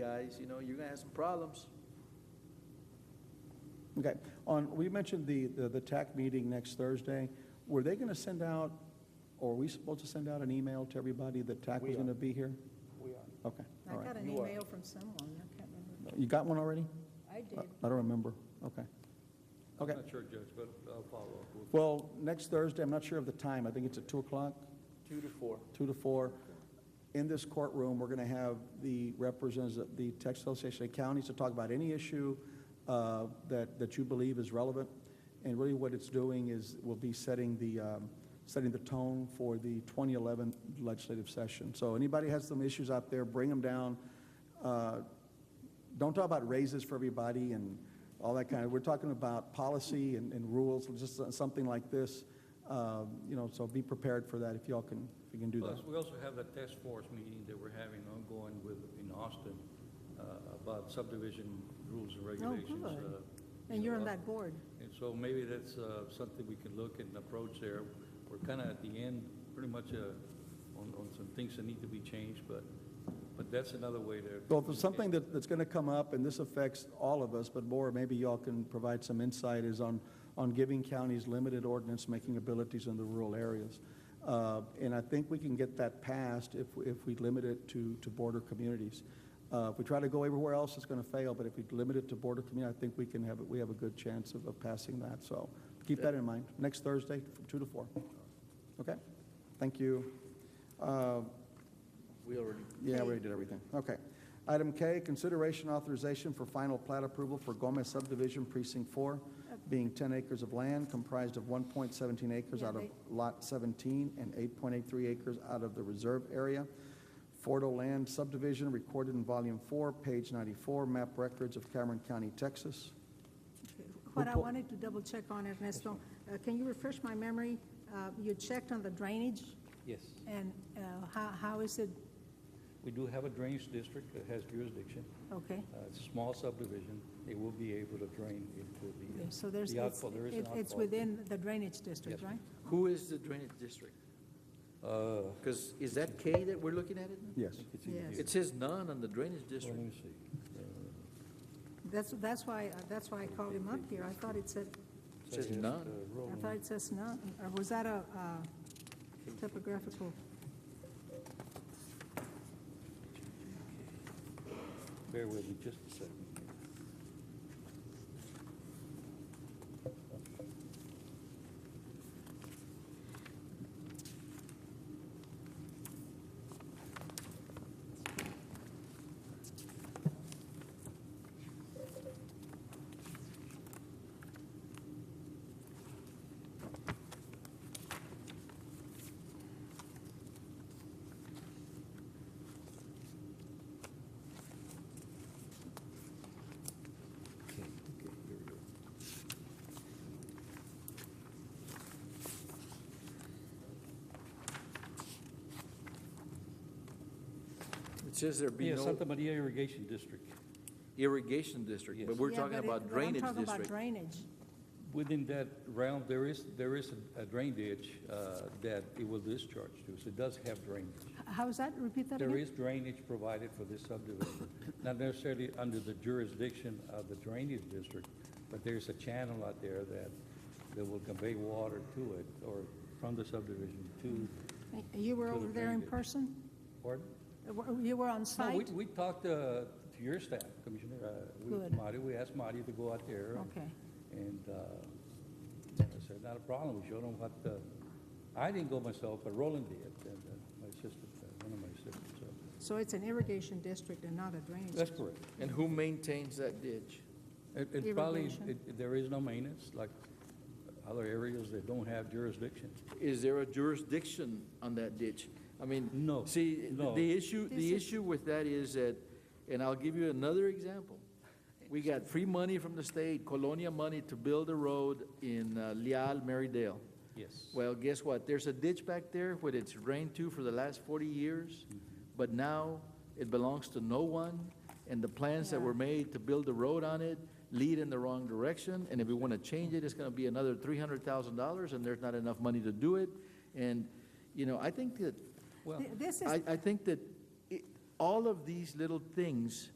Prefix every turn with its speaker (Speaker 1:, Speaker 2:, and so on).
Speaker 1: guys, you know, you're gonna have some problems.
Speaker 2: Okay, on, we mentioned the, the, the TAC meeting next Thursday. Were they gonna send out, or are we supposed to send out an email to everybody that TAC
Speaker 3: We
Speaker 2: was
Speaker 3: are.
Speaker 2: gonna be here?
Speaker 3: We are.
Speaker 2: Okay,
Speaker 4: I
Speaker 2: all right.
Speaker 4: got an
Speaker 3: You are.
Speaker 4: email from someone, I can't remember.
Speaker 2: You got one already?
Speaker 4: I
Speaker 5: Uh,
Speaker 2: I
Speaker 4: did.
Speaker 2: I don't remember, okay.
Speaker 5: I'm
Speaker 2: Okay,
Speaker 5: not sure, Judge, but I'll follow up. with-
Speaker 2: well, next Thursday, I'm not sure of the time, I think it's at two o'clock,
Speaker 3: Two to four.
Speaker 2: two to four. In this courtroom, we're gonna have the representatives of the Texas Association of Counties to talk about any issue, uh, that, that you believe is relevant. And really what it's doing is, will be setting the, um, setting the tone for the 2011 legislative session. So anybody has some issues out there, bring them down. Uh, don't talk about raises for everybody and all that kind of, we're talking about policy and, and rules, just something like this. Um, You know, so be prepared for that if y'all can, if you can do that.
Speaker 5: Plus, we also have that task force meeting that we're having ongoing with, in Austin, uh, about subdivision rules and regulations.
Speaker 4: Oh, good.
Speaker 5: uh, you
Speaker 4: And you're
Speaker 5: know,
Speaker 4: on
Speaker 5: uh,
Speaker 4: that board.
Speaker 5: And so maybe that's uh, something we can look and approach there. We're kind of at the end, pretty much uh, on, on some things that need to be changed, but, but that's another way to.
Speaker 2: Well, if there's something that, that's going to come up, and this affects all of us, but more, maybe y'all can provide some insight, is on, on giving counties limited ordinance-making abilities in the rural areas. Uh, And I think we can get that passed if, if we limit it to, to border communities. Uh, If we try to go everywhere else, it's going to fail, but if we limit it to border community, I think we can have, we have a good chance of, of passing that. So keep that in mind, next Thursday, from two to four. Okay? Thank you. Uh,
Speaker 1: We already
Speaker 2: yeah, we already did everything. Okay. Item K, consideration authorization for final plat approval for Gomez subdivision precinct four, being ten acres of land comprised of one point seventeen acres
Speaker 4: Yeah,
Speaker 2: out of
Speaker 4: they-
Speaker 2: lot seventeen and eight point eight three acres out of the reserve area. Fordo land subdivision recorded in volume four, page ninety-four, map records of Cameron County, Texas.
Speaker 4: What I
Speaker 2: pull-
Speaker 4: wanted to double check on, Ernesto, uh, can you refresh my memory? Uh, You checked on the drainage
Speaker 5: Yes,
Speaker 4: and uh, how, how is it,
Speaker 5: we do have a drainage district that has jurisdiction.
Speaker 4: okay?
Speaker 5: Uh, It's a small subdivision, it will be able to drain into the.
Speaker 4: Okay, So there's,
Speaker 5: the
Speaker 4: it's,
Speaker 5: outfall. There is an
Speaker 4: it- it's
Speaker 5: outfall.
Speaker 4: within the drainage district,
Speaker 5: Yes, ma'am.
Speaker 4: right?
Speaker 1: Who is the drainage district?
Speaker 5: Uh,
Speaker 1: Because is that K that we're looking at it? now?
Speaker 2: Yes.
Speaker 5: it's in
Speaker 4: Yes.
Speaker 5: here.
Speaker 1: It says none on the drainage
Speaker 5: Well, Let
Speaker 1: district.
Speaker 5: me see. Uh,
Speaker 4: That's, that's why, that's why I called him up here. I thought it said,
Speaker 1: It says
Speaker 5: it's, uh,
Speaker 1: none.
Speaker 4: I
Speaker 5: Roland.
Speaker 4: thought it says not, or was that a uh, typographical?
Speaker 5: Bear with me just a second. here.
Speaker 1: Okay, okay, here we go. It says there be
Speaker 5: Yeah, Santa
Speaker 1: no
Speaker 5: Maria Irrigation District.
Speaker 1: irrigation district, but
Speaker 5: Yes.
Speaker 1: we're
Speaker 4: Yeah,
Speaker 1: talking
Speaker 4: but it-
Speaker 1: about
Speaker 4: but
Speaker 1: drainage
Speaker 4: I'm talking about
Speaker 1: district.
Speaker 4: drainage.
Speaker 5: Within that realm, there is, there is a drain ditch uh, that it will discharge to, so it does have drainage.
Speaker 4: How is that? Repeat that again?
Speaker 5: There is drainage provided for this subdivision, not necessarily under the jurisdiction of the drainage district, but there's a channel out there that, that will convey water to it, or from the subdivision to,
Speaker 4: You were
Speaker 5: To the
Speaker 4: over there in
Speaker 5: drainage.
Speaker 4: person?
Speaker 5: pardon?
Speaker 4: Uh, were- You were on
Speaker 5: No, we,
Speaker 4: site?
Speaker 5: we talked uh, to your staff, Commissioner, uh, we,
Speaker 4: Good.
Speaker 5: Marty, we asked Marty to go out there. and-
Speaker 4: Okay.
Speaker 5: And, uh, I said, not a problem, we showed him what, uh, I didn't go myself, but Roland did, and uh, my sister, uh, one of my sisters, so,
Speaker 4: So it's an irrigation district and not a drainage?
Speaker 5: that's
Speaker 4: district.
Speaker 5: correct.
Speaker 1: And who maintains that ditch?
Speaker 5: It, it probably,
Speaker 4: Irrigation.
Speaker 5: it, there is no maintenance, like other areas that don't have jurisdiction.
Speaker 1: Is there a jurisdiction on that ditch? I mean.
Speaker 5: No,
Speaker 1: See,
Speaker 5: no.
Speaker 1: the issue, the
Speaker 4: This is-
Speaker 1: issue with that is that, and I'll give you another example. We got free money from the state, Colonia money to build a road in uh, Leal, Marydale.
Speaker 5: Yes.
Speaker 1: Well, guess what? There's a ditch back there where it's drained to for the last forty years, but now it belongs to no one, and the plans that
Speaker 4: Yeah.
Speaker 1: were made to build the road on it lead in the wrong direction, and if we want to change it, it's going to be another three hundred thousand dollars, and there's not enough money to do it. And, you know, I think that
Speaker 5: Well,
Speaker 4: Th- This is,
Speaker 1: I, I think that it, all of these little things